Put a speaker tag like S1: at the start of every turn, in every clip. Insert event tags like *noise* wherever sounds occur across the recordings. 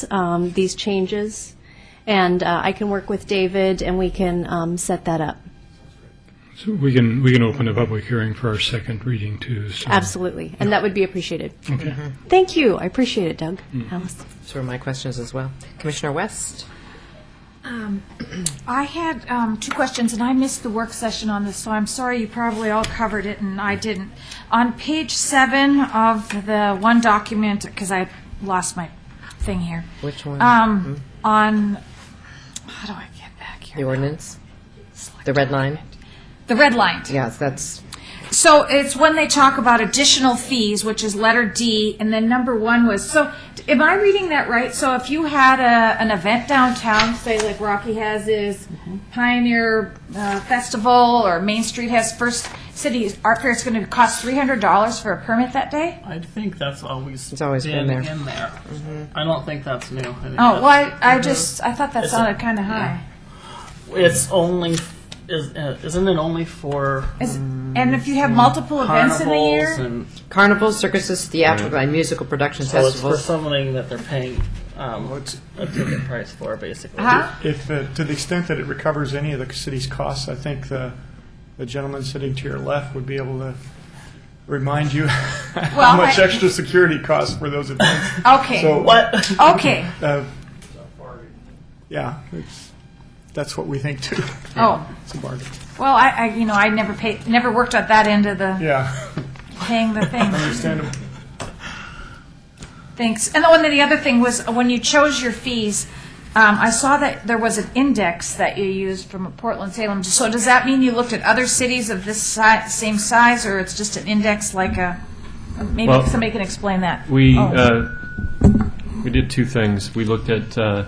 S1: these, um, these changes, and uh, I can work with David, and we can um, set that up.
S2: So we can, we can open a public hearing for our second reading too. so-
S1: Absolutely, and that would be appreciated.
S2: Okay.
S1: Thank you, I appreciate it, Doug, Alice.
S3: Those were my questions as well. Commissioner West?
S4: I had um, two questions, and I missed the work session on this, so I'm sorry you probably all covered it and I didn't. On page seven of the one document, because I lost my thing here.
S3: Which one? Hmm?
S4: Um, on, how do I get back
S3: The
S4: here?
S3: ordinance? The red line?
S4: The red line.
S3: Yes, that's,
S4: So it's when they talk about additional fees, which is letter D, and then number one was, so am I reading that right? So if you had a, an event downtown, say like Rocky has his Pioneer uh, Festival or Main Street has First City Art Fair, it's going to cost $300 for a permit that day?
S5: I think that's always
S3: It's always been there. Mm-hmm.
S5: in there. I don't think that's new. I think
S4: Oh, well, I,
S5: that's-
S4: I just, I thought that
S5: Mm-hmm. It's a-
S4: sounded kind of high.
S5: it's only is uh, isn't it only for
S4: Is- And if you have multiple events in a
S5: Mm-hmm. carnivals
S4: year?
S5: and
S3: carnivals, circuses, theatrical, and musical productions,
S5: so it's for
S3: festivals.
S5: something that they're paying um, a ticket price for basically.
S4: Huh?
S6: If, uh, to the extent that it recovers any of the city's costs, I think the, the gentleman sitting to your left would be able to remind you *laughs* how
S4: Well,
S6: much
S4: I-
S6: extra security costs for those events.
S4: Okay,
S6: So,
S5: What? *laughs*
S4: okay.
S6: uh, yeah, it's, that's what we think too.
S4: Oh,
S6: It's a bargain.
S4: well, I, I, you know, I never paid, never worked at that end of the.
S6: Yeah, *laughs*
S4: paying the thing.
S5: *laughs*
S6: understandable.
S4: Thanks. And the one, the other thing was, when you chose your fees, um, I saw that there was an index that you used from Portland Salem. So does that mean you looked at other cities of this si- same size, or it's just an index like a, maybe
S7: Well,
S4: somebody can explain that?
S7: We,
S4: Oh.
S7: uh, we did two things. We looked at uh,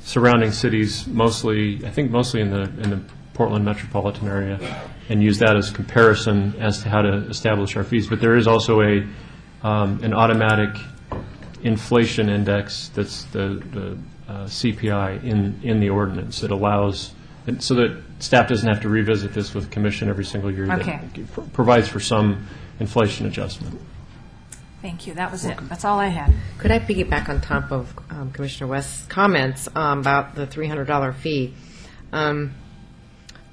S7: surrounding cities, mostly, I think mostly in the, in the Portland metropolitan area, and used that as comparison as to how to establish our fees. But there is also a, um, an automatic inflation index that's the the, uh, CPI in, in the ordinance. It allows, and so that staff doesn't have to revisit this with commission every single year. That
S4: Okay.
S7: Provides for some inflation adjustment.
S4: Thank you. That was it. That's all I had.
S3: Could I piggyback on top of um, Commissioner West's comments um, about the $300 fee? Um,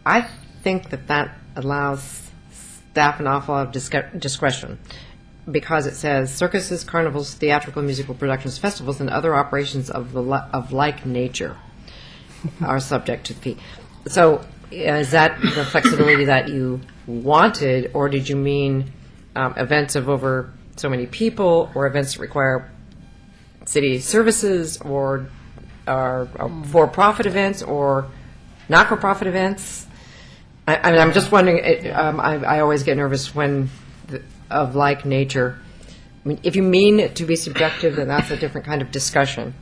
S3: I think that that allows staff an awful lot of discre- discretion, because it says circuses, carnivals, theatrical, musical productions, festivals, and other operations of the, li- of like nature are subject to fee. So uh, is that the flexibility that you wanted, or did you mean um, events of over so many people, or events that require city services, or, or or for-profit
S4: Mm.
S3: events, or not-for-profit events? I, I mean, I'm just wondering, it, um, I, I always get nervous when, the- of like nature. I mean, if you mean it to be subjective, then that's a different kind of discussion.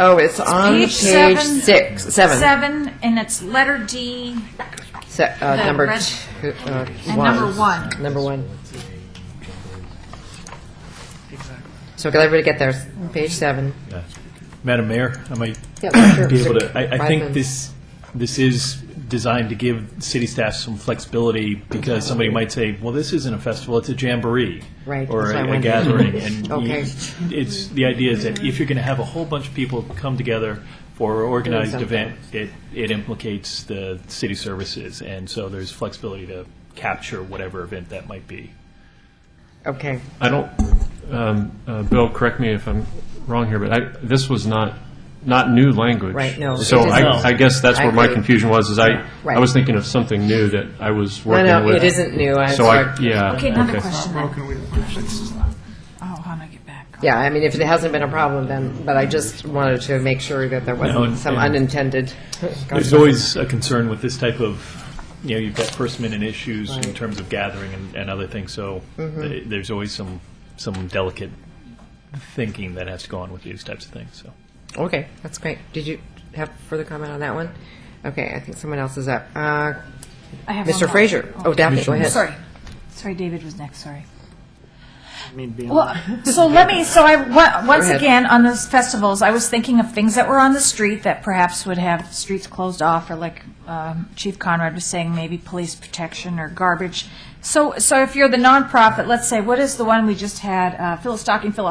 S3: Oh, it's on
S4: page
S3: page
S4: seven-
S3: six, seven,
S4: Seven, and it's letter D
S3: se- uh,
S4: the
S3: number
S4: red-
S3: two, uh,
S4: and number one.
S3: Number one. So can everybody get there? Page seven.
S8: Yeah. Madam Mayor, I might
S3: Yeah,
S8: be
S3: sure.
S8: able to, I, I think
S3: Reitman.
S8: this, this is designed to give city staff some flexibility because somebody might say, well, this isn't a festival, it's a jamboree.
S3: Right,
S8: Or
S3: that's what I
S8: a- a
S3: wondered.
S8: gathering. And you-
S3: Okay.
S8: it's, the idea is that if you're going to have a whole bunch of people come together for an organized
S3: Doing something.
S8: event, it, it implicates the city services. And so there's flexibility to capture whatever event that might be.
S3: Okay.
S7: I don't, um, uh, Bill, correct me if I'm wrong here, but I, this was not, not new language.
S3: Right, no, it
S7: So
S3: isn't.
S7: I, I guess that's
S3: I
S7: where my
S3: agree.
S7: confusion was, is I,
S3: Right.
S7: I was thinking of something new that I was working with.
S3: no, it isn't new. I-
S7: So I, yeah.
S4: Okay, another question then.
S6: Broken, we don't.
S4: Oh, how do I get back?
S3: Yeah, I mean, if it hasn't been a problem, then, but I just wanted to make sure that there
S8: No,
S3: wasn't
S8: and-
S3: some
S8: and-
S3: unintended.
S8: There's always a concern with this type of, you know, you've got first-minute issues in terms of gathering and, and other things, so th- there's always some, some delicate thinking that has to go on with these types of things, so.
S3: Okay, that's great. Did you have further comment on that one? Okay, I think someone else is up. Uh,
S4: I have one
S3: Mr.
S4: more.
S3: Frazier. Oh, Daphne, go ahead.
S4: Sorry. Sorry, David was next, sorry. Well, so let me, so I, wa- once
S3: ahead.
S4: again, on those festivals, I was thinking of things that were on the street that perhaps would have streets closed off, or like um, Chief Conrad was saying, maybe police protection or garbage So, so if you're the nonprofit, let's say, what is the one we just had, uh, Phil Stocking, Phil